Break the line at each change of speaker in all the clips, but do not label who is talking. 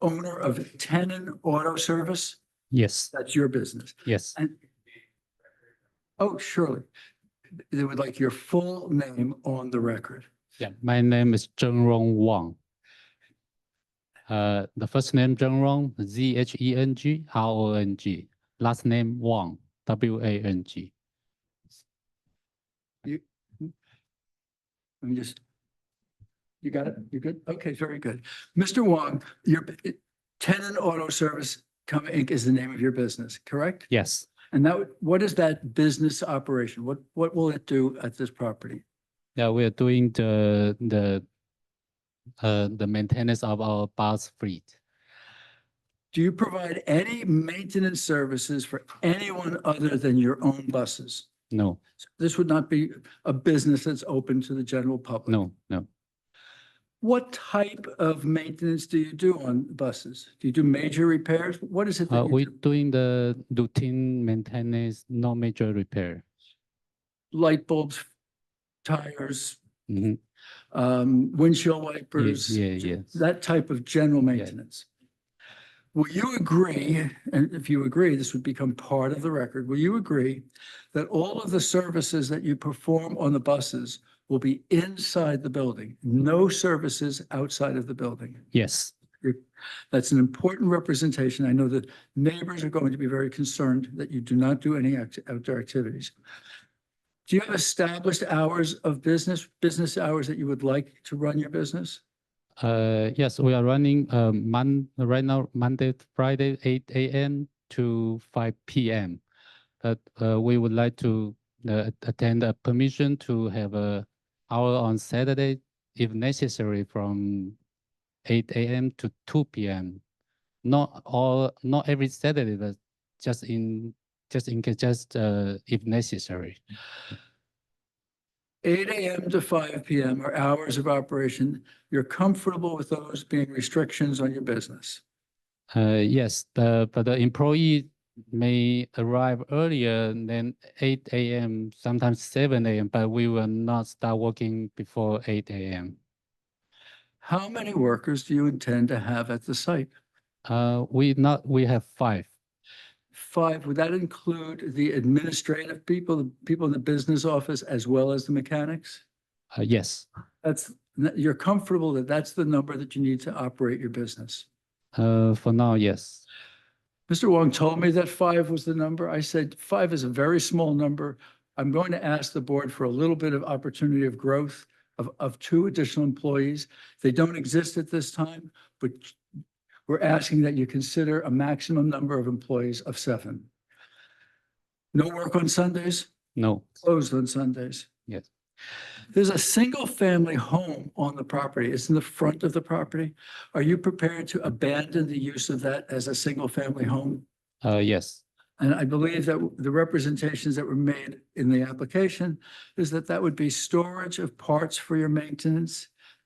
owner of Tenon Auto Service?
Yes,
That's your business.
yes.
Oh, surely. They would like your full name on the record.
Yeah, my name is Zheng Rong Wang. Uh, the first name Zheng Rong, Z H E N G R O N G. Last name Wang, W A N G.
Let me just. You got it? You good? Okay, very good. Mr. Wong, your Tenon Auto Service Co. Inc. is the name of your business, correct?
Yes,
And that, would- what is that business operation? What, what will it do at this property?
yeah, we are doing the the uh the maintenance of our bus fleet.
Do you provide any maintenance services for anyone other than your own buses?
No,
This would not be a business that's open to the general public.
no, no.
What type of maintenance do you do on buses? Do you do major repairs? What is it that
Uh,
you
we
do?
doing the routine maintenance, no major repair.
Light bulbs, tires,
Mhm.
um, windshield wipers?
yeah,
j-
yes.
That type of general maintenance. Will you agree, and if you agree, this would become part of the record, will you agree that all of the services that you perform on the buses will be inside the building? No services outside of the building?
Yes,
That's an important representation. I know that neighbors are going to be very concerned that you do not do any act- outdoor activities. Do you have established hours of business, business hours that you would like to run your business?
uh, yes, we are running, um, Mon, right now, Monday, to Friday, eight AM to five PM. But, uh, we would like to, uh, attend a permission to have a hour on Saturday if necessary from eight AM to two PM. Not all, not every Saturday, but just in, just in case, just, uh, if necessary.
Eight AM to five PM are hours of operation. You're comfortable with those being restrictions on your business?
Uh, yes, the, but the employee may arrive earlier than eight AM, sometimes seven AM, but we will not start working before eight AM.
How many workers do you intend to have at the site?
Uh, we not, we have five.
Five, would that include the administrative people, the people in the business office, as well as the mechanics?
Uh, yes,
That's, you're comfortable that that's the number that you need to operate your business.
uh, for now, yes.
Mr. Wong told me that five was the number. I said, five is a very small number. I'm going to ask the board for a little bit of opportunity of growth of, of two additional employees. They don't exist at this time, but we're asking that you consider a maximum number of employees of seven. No work on Sundays?
No,
closed on Sundays.
Yes.
There's a single-family home on the property. It's in the front of the property. Are you prepared to abandon the use of that as a single-family home?
uh, yes,
And I believe that the representations that were made in the application is that that would be storage of parts for your maintenance.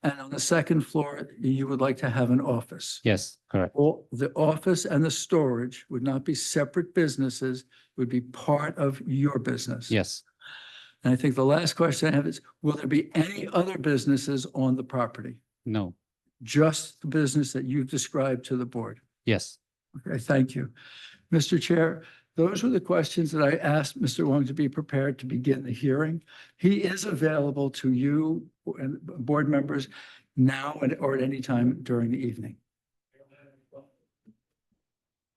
And on the second floor, you would like to have an office.
yes, correct.
All, the office and the storage would not be separate businesses, would be part of your business.
Yes,
And I think the last question I have is, will there be any other businesses on the property?
no,
Just the business that you've described to the board?
yes,
Okay, thank you. Mr. Chair, those were the questions that I asked Mr. Wong to be prepared to begin the hearing. He is available to you and board members now and- or at any time during the evening.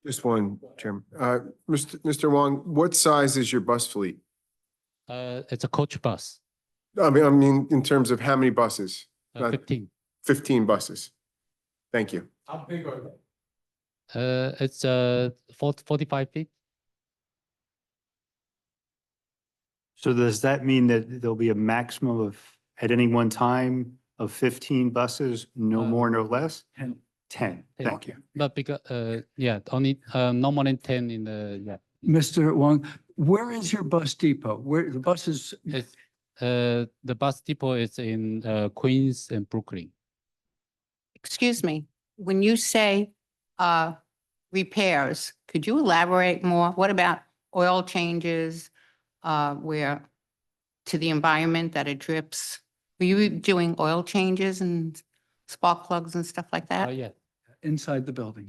Just one, Chairman. Uh, Mr. Mr. Wong, what size is your bus fleet?
uh, it's a coach bus,
I mean, I mean, in terms of how many buses?
uh,
Uh,
fifteen.
Fifteen buses. Thank you.
Uh, it's, uh, forty, forty-five feet.
So does that mean that there'll be a maximum of, at any one time, of fifteen buses, no
Uh,
more, no less?
Ten.
Ten,
Ten.
thank you.
But because, uh, yeah, only, uh, no more than ten in the, yeah.
Mr. Wong, where is your bus depot? Where, the buses,
It's, uh, the bus depot is in, uh, Queens and Brooklyn.
excuse me, when you say uh, repairs, could you elaborate more? What about oil changes uh, where, to the environment that it drips? Were you doing oil changes and spark plugs and stuff like
Oh,
that?
yeah.
inside the building.